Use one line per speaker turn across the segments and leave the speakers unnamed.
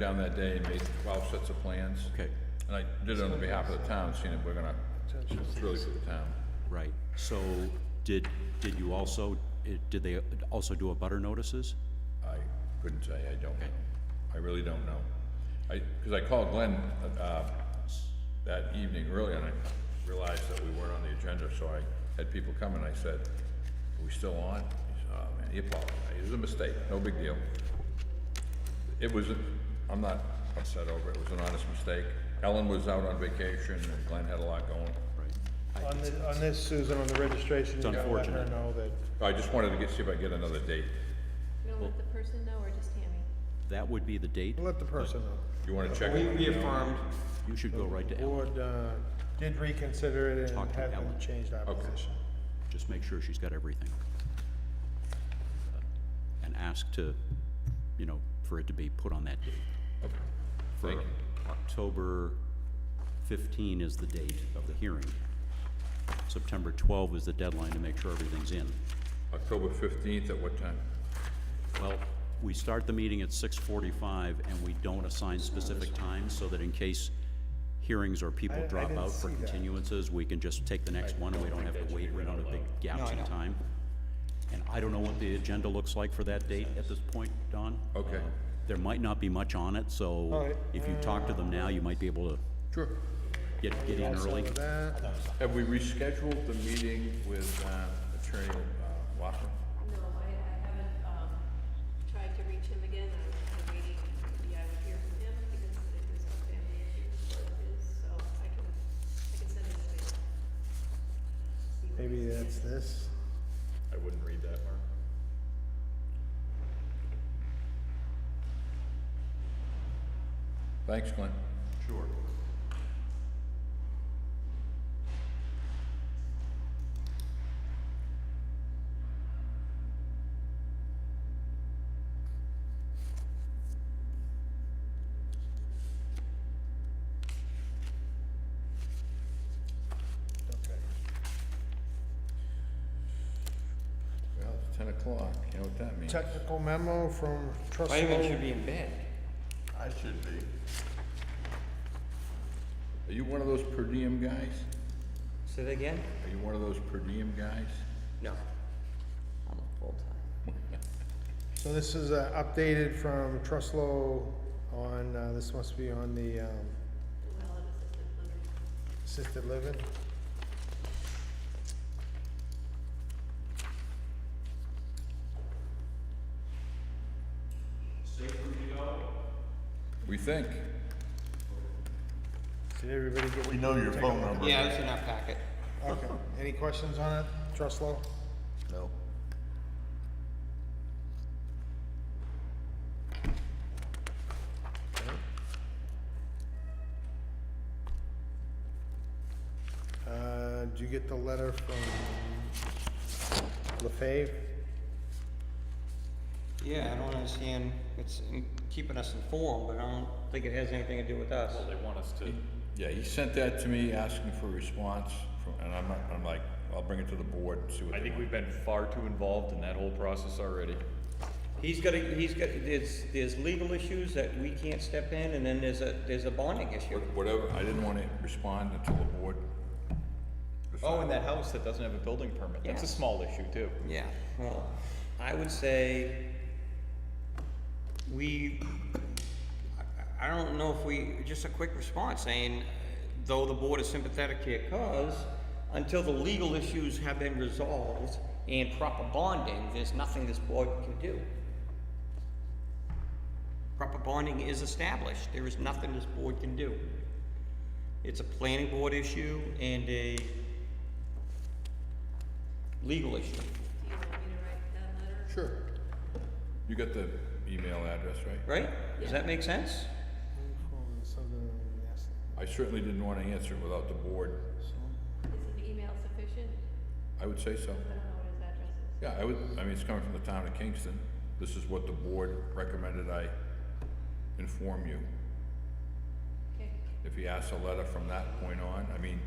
down that day and made twelve sets of plans.
Okay,
And I did it on behalf of the town, seeing that we're gonna, it's really for the town.
right. So did, did you also, eh, did they also do a butter notices?
I couldn't say, I don't know. I really don't know. I, cause I called Glenn, uh, that evening early and I realized that we weren't on the agenda, so I had people come and I said, are we still on? He said, oh man, he apologized. It was a mistake, no big deal. It was, I'm not upset over it, it was an honest mistake. Ellen was out on vacation and Glenn had a lot going.
Right.
On this, on this, Susan, on the registration, you gotta let her
unfortunate.
know that,
I just wanted to get, see if I could get another date.
You're gonna let the person know or just Tammy?
That would be the date.
let the person know.
You wanna check?
We
it?
reaffirmed,
You should go right to
The
Ellen.
board, uh, did reconsider it and
Talk to
have them
Ellen.
change our
Okay.
position.
Just make sure she's got everything. Uh, And ask to, you know, for it to be put on that date. For
Thank you.
October 15 is the date of the hearing. September 12 is the deadline to make sure everything's in.
October fifteenth at what time?
Well, we start the meeting at six forty-five, and we don't assign specific times, so that in case hearings or
I-
people
I
drop
didn't
out for
see that.
continuances, we can just take the next one, and we don't have to wait, we don't have big gaps in time. And I don't know what the agenda looks like for that date at this point, Don.
Okay.
Uh, There might not be much on it,
All
so
right.
if you talk to them now, you might be able to
Sure.
get, get in
Also
early.
with that,
Have we rescheduled the meeting with uh, Attorney uh, Watson?
No, I, I haven't, um, tried to reach him again, I'm kind of waiting, maybe I would hear from him, because it was a family issue of his, so I can, I can send him a mail.
maybe that's this.
I wouldn't read that, Mark. Thanks, Glenn. Sure.
Okay.
Well, it's ten o'clock, you know what that means.
Technical memo from trustee.
Raymond should be in bed.
I should be. Are you one of those per diem guys?
Say that again?
Are you one of those per diem guys?
No. I'm a full-time.
So this is uh, updated from Truslow on, uh, this must be on the um, assisted living.
We think.
Did everybody get?
We know your phone number.
Yeah, it's in our packet.
Okay, any questions on it, Truslow?
No.
Uh, did you get the letter from LaFave?
Yeah, I don't understand, it's in- keeping us informed, but I don't think it has anything to do with us.
Yeah, he sent that to me asking for a response from, and I'm, I'm like, I'll bring it to the board and see what
I
they
think
want.
we've been far too involved in that whole process already.
He's got, a- he's got, there's, there's legal issues that we can't step in, and then there's a, there's a bonding issue.
What- Whatever, I didn't wanna respond until the board.
Oh, and that house that doesn't have a building permit, that's a
Yes.
small issue too.
Yeah, well, I would say we, I, I don't know if we, just a quick response saying, though the board is sympathetic to your cause, until the legal issues have been resolved and proper bonding, there's nothing this board can do. Proper bonding is established, there is nothing this board can do. It's a planning board issue and a legal issue.
Do you want me to write that letter?
Sure. You got the email address, right?
Right? Does that make sense?
I certainly didn't wanna answer it without the board.
Is an email sufficient?
I would say so.
I don't know what his address is.
Yeah, I would, I mean, it's coming from the town of Kingston. This is what the board recommended I inform you.
Okay,
If he asks a letter from that point on, I mean,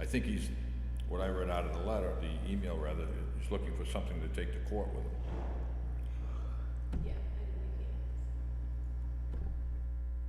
I think he's, what I read out of the letter, the email rather, he's looking for something to take to court with him.